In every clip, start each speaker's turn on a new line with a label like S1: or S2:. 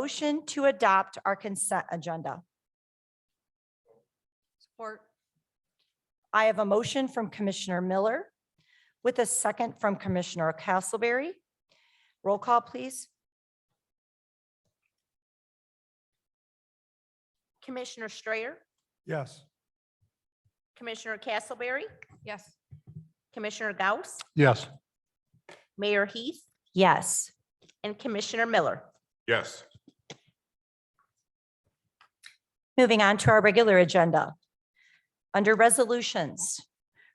S1: Motion to adopt our consent agenda.
S2: Support.
S1: I have a motion from Commissioner Miller with a second from Commissioner Castleberry. Roll call, please.
S3: Commissioner Strayer,
S4: Yes.
S3: Commissioner Castleberry,
S2: Yes.
S3: Commissioner Gauss,
S4: Yes.
S3: Mayor Heath,
S1: Yes.
S3: and Commissioner Miller.
S4: Yes.
S1: Moving on to our regular agenda. Under resolutions,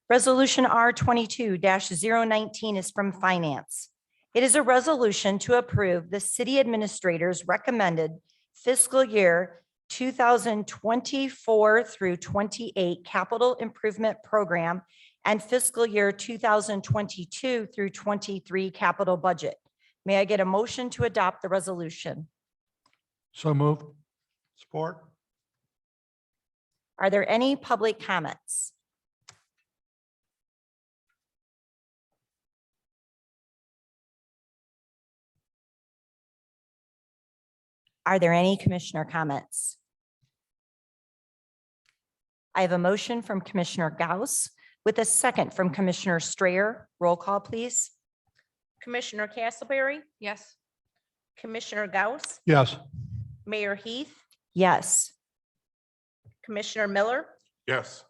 S1: Resolution R twenty-two 19 is from Finance. It is a resolution to approve the city administrator's recommended fiscal year two thousand twenty-four through twenty-eight capital improvement program and fiscal year two thousand twenty-two through twenty-three capital budget. May I get a motion to adopt the resolution?
S4: So moved. Support.
S1: Are there any public comments? Are there any commissioner comments? I have a motion from Commissioner Gauss with a second from Commissioner Strayer. Roll call, please.
S3: Commissioner Castleberry,
S2: Yes.
S3: Commissioner Gauss,
S4: Yes.
S3: Mayor Heath,
S1: Yes.
S3: Commissioner Miller,
S4: Yes.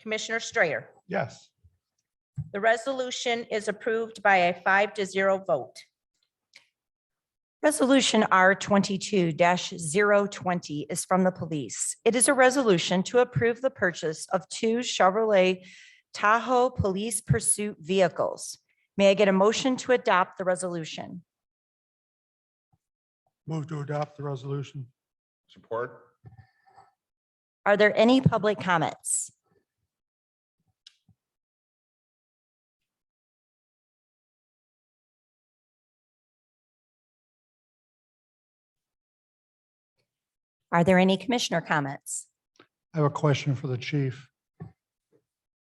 S3: Commissioner Strayer.
S4: Yes.
S3: The resolution is approved by a five to zero vote.
S1: Resolution R twenty-two 20 is from the police. It is a resolution to approve the purchase of two Chevrolet Tahoe Police Pursuit vehicles. May I get a motion to adopt the resolution?
S4: Move to adopt the resolution. Support.
S1: Are there any public comments? Are there any commissioner comments?
S4: I have a question for the chief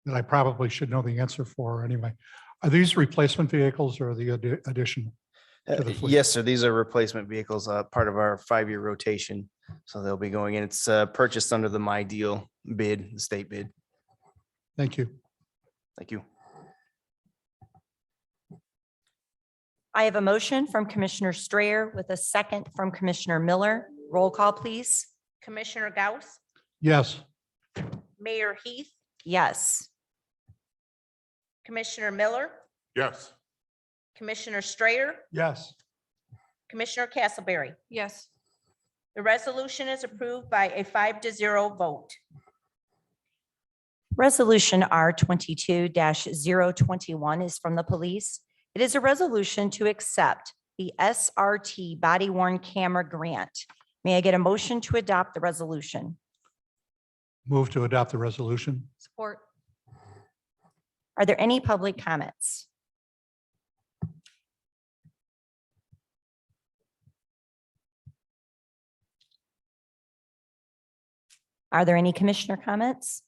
S4: that I probably should know the answer for anyway. Are these replacement vehicles or the addi- addition?
S5: Uh,
S4: to the fleet?
S5: Yes, sir. These are replacement vehicles, uh, part of our five-year rotation. So they'll be going in. It's, uh, purchased under the My Deal bid, the state bid.
S4: Thank you.
S5: Thank you.
S1: I have a motion from Commissioner Strayer with a second from Commissioner Miller. Roll call, please.
S3: Commissioner Gauss,
S4: Yes.
S3: Mayor Heath,
S1: Yes.
S3: Commissioner Miller,
S4: Yes.
S3: Commissioner Strayer,
S4: Yes.
S3: Commissioner Castleberry.
S2: Yes.
S3: The resolution is approved by a five to zero vote.
S1: Resolution R twenty-two 21 is from the police. It is a resolution to accept the SRT body worn camera grant. May I get a motion to adopt the resolution?
S4: Move to adopt the resolution.
S2: Support.
S1: Are there any public comments? Are there any commissioner comments?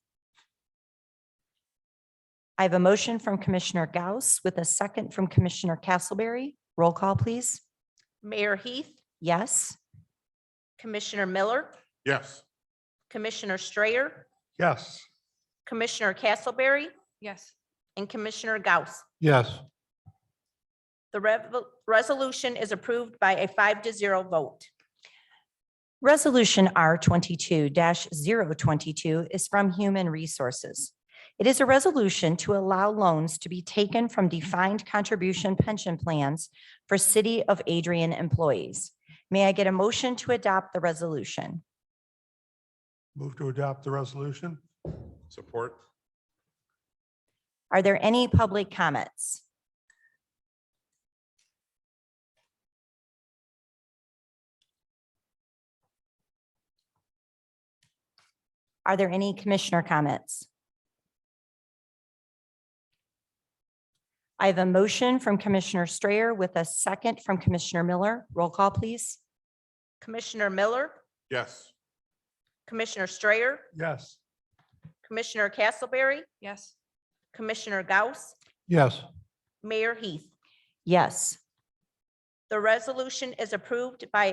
S1: I have a motion from Commissioner Gauss with a second from Commissioner Castleberry. Roll call, please.
S3: Mayor Heath,
S1: Yes.
S3: Commissioner Miller,
S4: Yes.
S3: Commissioner Strayer,
S4: Yes.
S3: Commissioner Castleberry,
S2: Yes.
S3: and Commissioner Gauss.
S4: Yes.
S3: The rev- resolution is approved by a five to zero vote.
S1: Resolution R twenty-two 22 is from Human Resources. It is a resolution to allow loans to be taken from defined contribution pension plans for City of Adrian employees. May I get a motion to adopt the resolution?
S4: Move to adopt the resolution. Support.
S1: Are there any public comments? Are there any commissioner comments? I have a motion from Commissioner Strayer with a second from Commissioner Miller. Roll call, please.
S3: Commissioner Miller,
S4: Yes.
S3: Commissioner Strayer,
S4: Yes.
S3: Commissioner Castleberry,
S2: Yes.
S3: Commissioner Gauss,
S4: Yes.
S3: Mayor Heath.
S1: Yes.
S3: The resolution is approved by